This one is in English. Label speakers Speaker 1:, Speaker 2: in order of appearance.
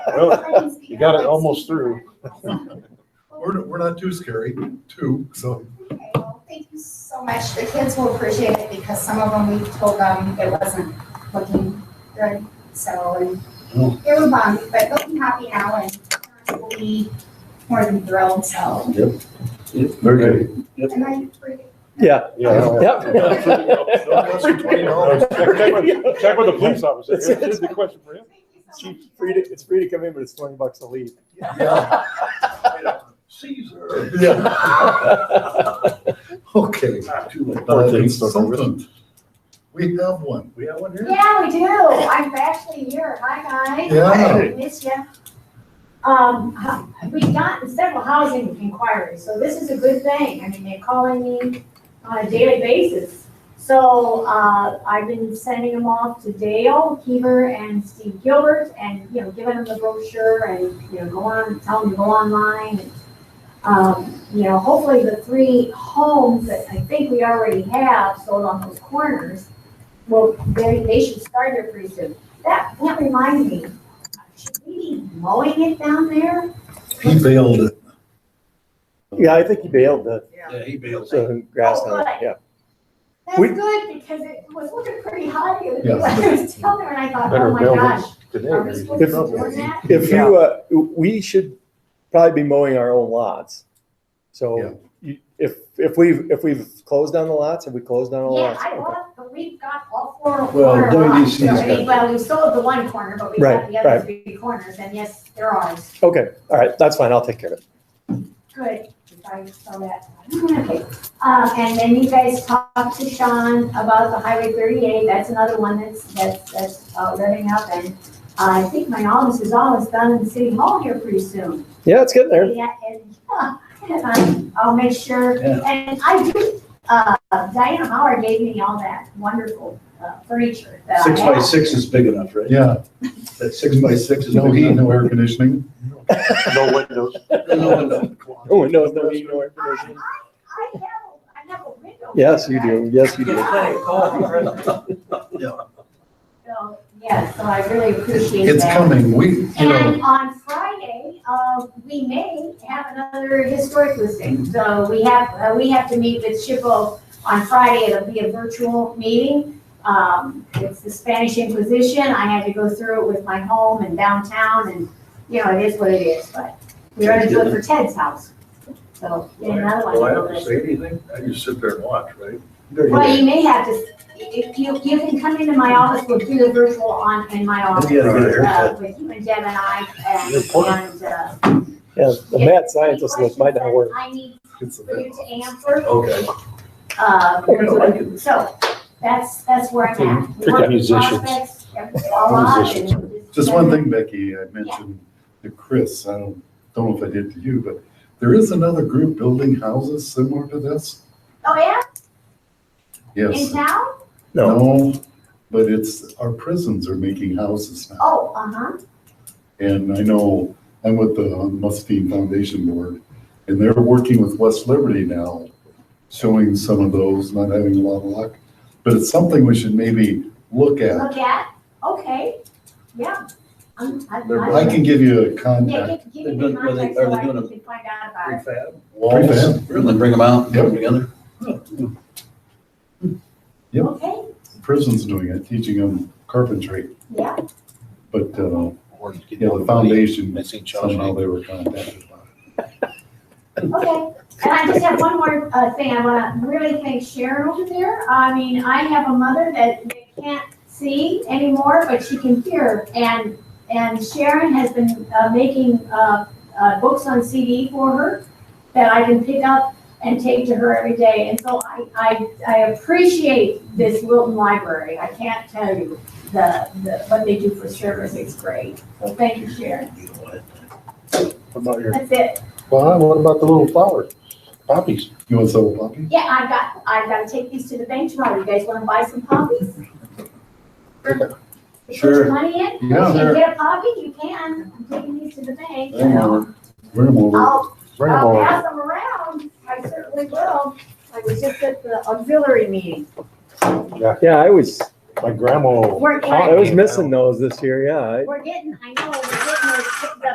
Speaker 1: Well,
Speaker 2: You
Speaker 1: you got it almost through.
Speaker 3: We're, we're not too scary, too, so.
Speaker 2: Thank you so much. The kids will appreciate it because some of them, we told them it wasn't looking good, so. and
Speaker 1: Mm.
Speaker 2: It was bummed, but they'll be happy now and we'll be more than thrilled, so.
Speaker 3: Very good.
Speaker 2: And I, agree.
Speaker 4: Yeah.
Speaker 1: Yeah.
Speaker 3: Don't cost you twenty dollars.
Speaker 1: Check with- check with the police officer.
Speaker 4: That's it.
Speaker 1: Here's the question for him.
Speaker 2: Thank you so
Speaker 4: It's
Speaker 2: much.
Speaker 4: free to, it's free to come in, but it's twenty bucks to leave.
Speaker 3: Caesar. Okay. Uh, consultant. We have one.
Speaker 5: We have one
Speaker 6: Yeah, we do. I'm actually here. Hi, guys.
Speaker 3: Yeah.
Speaker 6: Miss ya. Um, we've gotten several housing inquiries, so this is a good thing. I mean, they're calling me on a daily basis. So, uh, I've been sending them off to Dale Keever and Steve Gilbert and, you know, giving them the brochure and, you know, go on, tell them to go online. and, Um, you know, hopefully the three homes that I think we already have sold on those corners well, they, they should start it pretty soon. That, that reminds me, should we be mowing it down there?
Speaker 3: He bailed it.
Speaker 4: Yeah, I think he bailed the,
Speaker 3: Yeah, he bailed
Speaker 4: the grass
Speaker 6: Oh,
Speaker 4: on it, yeah.
Speaker 6: That's
Speaker 4: We-
Speaker 6: good, because it was looking pretty hot the other
Speaker 3: Yeah.
Speaker 6: day, when I was down there, and I thought,
Speaker 1: Better
Speaker 6: oh my
Speaker 1: build it
Speaker 6: gosh,
Speaker 1: today.
Speaker 6: are we
Speaker 1: maybe.
Speaker 6: supposed to be doing that?
Speaker 4: If you, uh, we should probably be mowing our own lots.
Speaker 3: Yeah.
Speaker 4: So you- if, if we've, if we've closed down the lots, have we closed down all the
Speaker 6: Yeah,
Speaker 4: lots?
Speaker 6: I
Speaker 4: Okay.
Speaker 6: bought, but we've got all four
Speaker 5: Well,
Speaker 6: corner lots,
Speaker 5: WDC 's
Speaker 6: I mean,
Speaker 5: got-
Speaker 6: well, we sold the one corner, but we
Speaker 4: Right,
Speaker 6: got the
Speaker 4: right.
Speaker 6: other three corners, and yes, they're ours,
Speaker 4: Okay, all right, that's fine, I'll take care of it.
Speaker 6: good, if I saw that. Okay, um, and then you guys talked to Sean about the Highway thirty-eight, that's another one that's, that's, that's, uh, revving up, and uh, I think my office is almost done in City Hall here pretty soon.
Speaker 4: Yeah, it's getting there.
Speaker 6: Yeah, and, uh, and I- I'll make sure,
Speaker 5: Yeah.
Speaker 6: and I do, uh, Diana Howard gave me all that wonderful uh, furniture that I
Speaker 5: Six by
Speaker 6: have.
Speaker 5: six is big enough, right?
Speaker 3: Yeah,
Speaker 5: That six by six is
Speaker 3: no
Speaker 5: big
Speaker 3: heat,
Speaker 5: enough.
Speaker 3: no air conditioning.
Speaker 1: No windows.
Speaker 4: Oh, no, no, you know, air conditioning.
Speaker 6: I have, I have a window.
Speaker 4: Yes,
Speaker 6: there,
Speaker 4: you do, yes, you do.
Speaker 6: So, yeah, so I really appreciate that.
Speaker 3: It's coming. We, you know,
Speaker 6: And on Friday, uh, we may have another historic listing. So we have, uh, we have to meet with Shippo on Friday. It'll be a virtual meeting. Um, it's the Spanish Inquisition. I had to go through it with my home and downtown and, you know, it is what it is, but we already do it for Ted's house. So, yeah, another one.
Speaker 7: Do I have to say anything? I just sit there and watch, right?
Speaker 6: Well, you may have to, if you, you can come into my office, we'll do the virtual on, in my office.
Speaker 5: Yeah, yeah, yeah.
Speaker 6: uh, With you and Deb and I and, and, uh,
Speaker 4: Yeah, the mad scientist list might not work.
Speaker 6: I need
Speaker 3: it's a
Speaker 6: for you
Speaker 3: bit-
Speaker 6: to answer,
Speaker 7: Okay.
Speaker 6: um,
Speaker 7: I can-
Speaker 6: so, that's, that's where I'm at.
Speaker 1: Pick up musicians.
Speaker 6: Prospects, everything's all on, and just-
Speaker 3: Just one thing, Becky, I mentioned to Chris, I don't, don't know if I did to you, but there is another group building houses similar to this.
Speaker 6: Oh, yeah, in
Speaker 3: Yes.
Speaker 6: town?
Speaker 4: No,
Speaker 3: But it's, our prisons are making houses now.
Speaker 6: Oh, uh-huh,
Speaker 3: And I know, I'm with the Mustine Foundation Board, and they're working with West Liberty now, showing some of those, not having a lot of luck. But it's something we should maybe look at.
Speaker 6: look at, okay, yeah. I'm, I,
Speaker 5: They're
Speaker 3: I
Speaker 6: I.
Speaker 3: can give you a
Speaker 6: Yeah,
Speaker 3: contact.
Speaker 6: give, give
Speaker 5: They're
Speaker 6: me
Speaker 5: doing-
Speaker 6: the
Speaker 5: were they-
Speaker 6: contact
Speaker 5: are
Speaker 6: so
Speaker 5: they
Speaker 6: I
Speaker 5: doing a-
Speaker 6: can find out about it.
Speaker 5: Prefab.
Speaker 3: Walls.
Speaker 5: Really, bring them out, put them together.
Speaker 3: Yep.
Speaker 6: Okay,
Speaker 3: Prison's doing it, teaching them carpentry,
Speaker 6: yeah,
Speaker 3: but, uh, yeah, the foundation,
Speaker 5: Missing
Speaker 3: somehow
Speaker 5: Shawshank.
Speaker 3: they were contacted by.
Speaker 6: Okay, and I just have one more uh, thing, I wanna really thank Sharon over there. I mean, I have a mother that they can't see anymore, but she can hear. And, and Sharon has been uh, making uh, uh, books on CD for her that I can pick up and take to her every day. And so I, I, I appreciate this Wilton Library. I can't tell you the, the, what they do for service, it's great. So thank you, Sharon.
Speaker 1: About your-
Speaker 6: That's it.
Speaker 1: Well, what about the little flowers? Poppies.
Speaker 3: You want some poppy?
Speaker 6: Yeah, I got, I gotta take these to the bank tomorrow. You guys wanna buy some poppies? Put
Speaker 5: Sure.
Speaker 6: your money in, if you
Speaker 3: Yeah,
Speaker 6: can
Speaker 3: they're-
Speaker 6: get a poppy, you can. I'm taking these to the bank.
Speaker 3: Bring 'em over. Bring 'em over.
Speaker 6: I'll,
Speaker 1: Bring them
Speaker 6: I'll
Speaker 1: over.
Speaker 6: pass them around. I certainly will. I was just at the auxiliary meeting.
Speaker 4: yeah, I was,
Speaker 1: My grandma.
Speaker 6: We're
Speaker 4: I was
Speaker 6: getting,
Speaker 1: Oh,
Speaker 4: missing those this year, yeah. I-
Speaker 6: we're getting, I know,